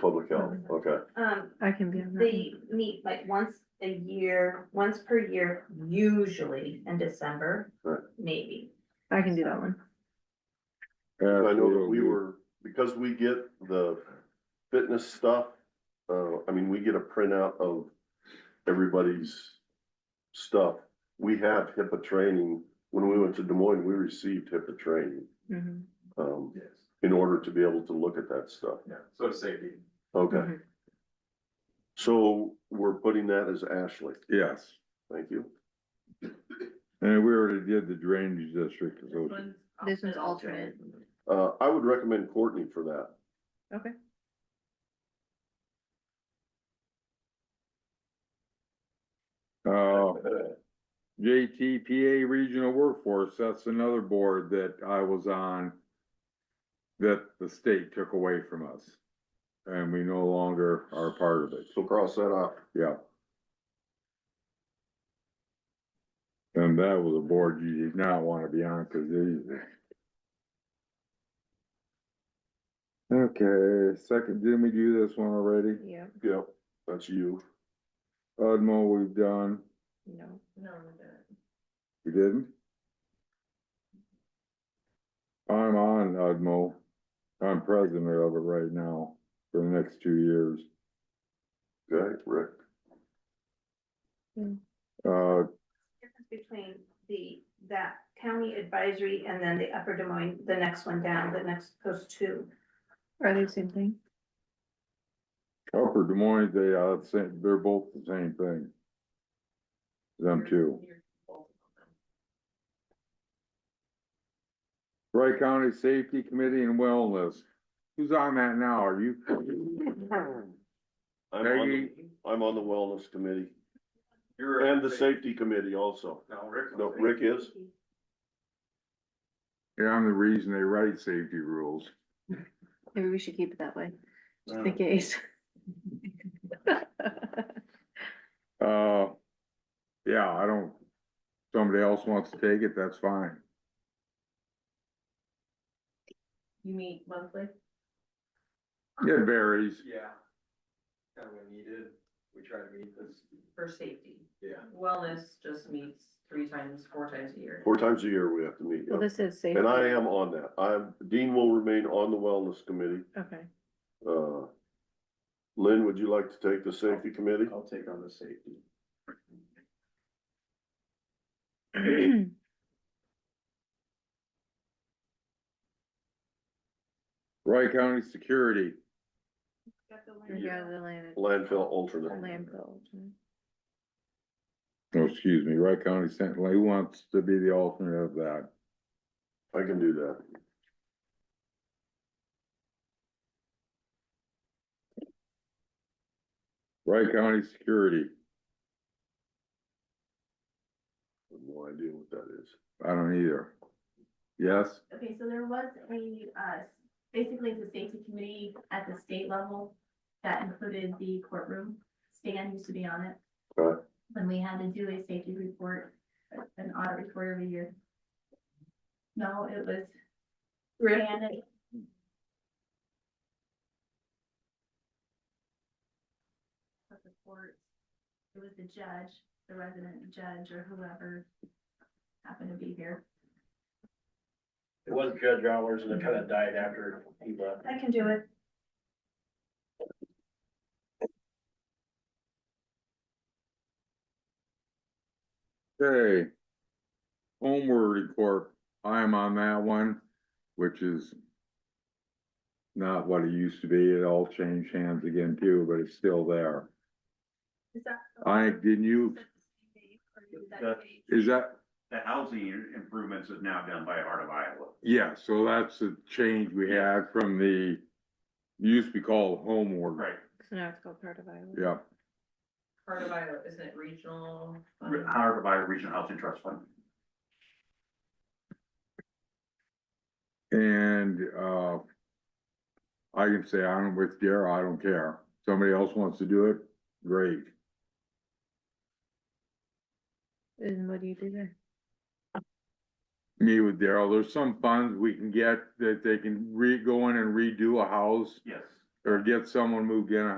Public health, okay, Um, I can be on that. they meet like once a year, once per year, usually in December, Right. maybe. one. I can do that one. I know that we were, because we get the fitness stuff, uh, I mean, we get a printout of everybody's stuff. We have HIPAA training, when we went to Des Moines, we received HIPAA training, Mhm. um, Yes, in order to be able to look at that stuff. yeah, so safety. Okay, Mhm. so we're putting that as Ashley, Yes, thank you. and we already did the drainage district, so This one's alternate. Uh, I would recommend Courtney for that. Okay. Uh, JTPA Regional Workforce, that's another board that I was on that the state took away from us. And we no longer are a part of it, So cross that off. yeah. And that was a board you did not want to be on, cause they. Okay, second, didn't we do this one already? Yeah, Yep, that's you. Udmo, we've done, no. No, we didn't? I'm on Udmo, I'm president of it right now, for the next two years. Okay, Rick. Uh, Difference between the, that county advisory and then the Upper Des Moines, the next one down, the next, those two. Are they the same thing? Upper Des Moines, they, uh, same, they're both the same thing. Them two. Wright County Safety Committee and Wellness, who's on that now, are you? I'm Are on the- you- I'm on the wellness committee You're. and the safety committee also. No, Rick. No, Rick is, Yeah, I'm the reason they write safety rules. Maybe we should keep it that way, just in case. Uh, yeah, I don't, somebody else wants to take it, that's fine. You meet monthly? It varies. Yeah. Kind of when needed, we try to meet this, For safety. yeah. Wellness just meets three times, four times a year. four times a year we have to meet. Well, this is safe. And I am on that. I'm, Dean will remain on the wellness committee. Okay, Uh, Lynn, would you like to take the safety committee? I'll take on the safety. Wright County Security, yeah, the land, Landfill alternate. landfill. oh, excuse me, Wright County Sentinel, who wants to be the alternate of that? I can do that. Wright County Security, I have No idea what that is. I don't either. Yes, Okay, so there was a, uh, basically it's a safety committee at the state level that included the courtroom. Stan used to be on it. Right. When we had to do a safety report, an audit report every year. No, it was Rick, Stan and of the court. It was the judge, the resident judge or whoever happened to be here. It was Judge Hours and it kind of died after he left. I can do it. okay. Homeward Corp, I am on that one, which is not what it used to be, it all changed hands again too, but it's still there. Is that? I, didn't you, That- is that, The housing improvements is now done by Heart of Iowa. Yeah, so that's a change we had from the, used to be called homeward. Right, So now it's called part of Iowa. Yeah, Part of Iowa, isn't it regional? Re- Heart of Iowa Regional Housing Trust Fund. and, uh, I can say I'm with Dara, I don't care. Somebody else wants to do it, great. And what do you do there? Me with Daryl, there's some funds we can get that they can re, go in and redo a house. Yes, or get someone moved in